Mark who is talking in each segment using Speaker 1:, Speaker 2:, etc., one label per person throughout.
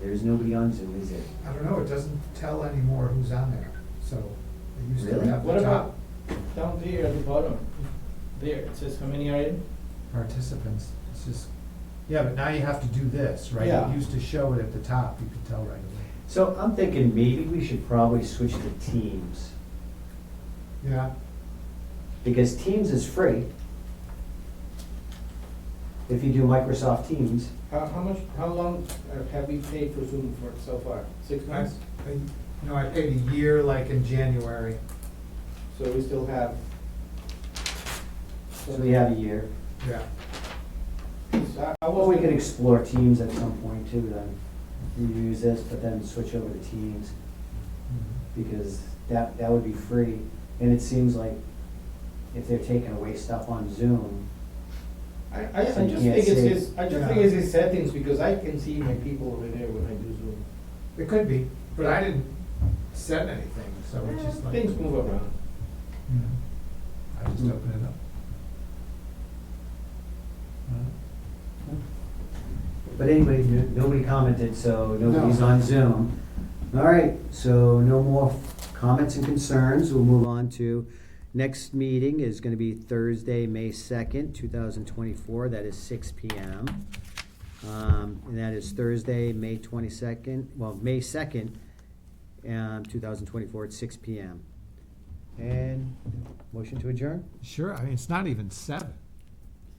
Speaker 1: There's nobody on Zoom, is there?
Speaker 2: I don't know, it doesn't tell anymore who's on there, so it used to
Speaker 1: Really?
Speaker 2: have
Speaker 3: What
Speaker 2: the
Speaker 3: about
Speaker 2: top
Speaker 3: down there at the bottom? There, it says how many are in?
Speaker 2: participants, it's just, yeah, but now you have to do this, right?
Speaker 3: Yeah.
Speaker 2: It used to show it at the top, you could tell right away.
Speaker 1: So I'm thinking maybe we should probably switch to Teams,
Speaker 2: Yeah,
Speaker 1: because Teams is free. If you do Microsoft Teams,
Speaker 3: How, how much, how long uh, have we paid for Zoom for so far? Six
Speaker 2: I,
Speaker 3: months?
Speaker 2: I, no, I paid a year like in January,
Speaker 3: So we still have.
Speaker 1: so we have a year.
Speaker 2: yeah.
Speaker 3: So I- I
Speaker 1: Well, we could
Speaker 3: wasn't-
Speaker 1: explore Teams at some point too, then. You use this, but then switch over to Teams,
Speaker 2: Mm-hmm.
Speaker 1: because that, that would be free. And it seems like if they're taking away stuff on Zoom,
Speaker 3: I, I, I just
Speaker 1: So you can't
Speaker 3: think it's
Speaker 1: see.
Speaker 3: his, I just think
Speaker 2: Yeah.
Speaker 3: it's his settings because I can see my people over there when I do Zoom.
Speaker 2: It could be, but I didn't send anything, so it's just
Speaker 3: Eh,
Speaker 2: like. Mm.
Speaker 3: Things move around.
Speaker 2: you know, Mm-hmm. I just open it up.
Speaker 1: But anyway, n- nobody commented, so nobody's on Zoom. All right, so no more f- comments and concerns. We'll move on to, next meeting is gonna be Thursday, May second, two thousand twenty-four. That is six P M. Um, and that is Thursday, May twenty-second, well, May second, um, two thousand twenty-four at six P M. And motion to adjourn?
Speaker 2: Sure, I mean, it's not even seven.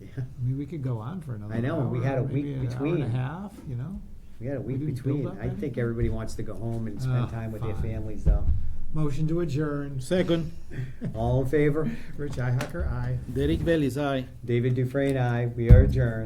Speaker 1: Yeah.
Speaker 2: I mean, we could go on for another
Speaker 1: I know, we
Speaker 2: hour,
Speaker 1: had a week
Speaker 2: maybe an Hour
Speaker 1: between.
Speaker 2: and a half, you know?
Speaker 1: We got a week
Speaker 2: didn't
Speaker 1: between.
Speaker 2: build up
Speaker 1: I think
Speaker 2: anything?
Speaker 1: everybody wants to go home and spend
Speaker 2: Oh,
Speaker 1: time with their
Speaker 2: fine.
Speaker 1: families though.
Speaker 2: Motion to adjourn. Second.
Speaker 1: All in favor?
Speaker 2: Rich Ihacker, aye.
Speaker 4: Derek Bell is aye.
Speaker 1: David Dufresne, aye. We are adjourned.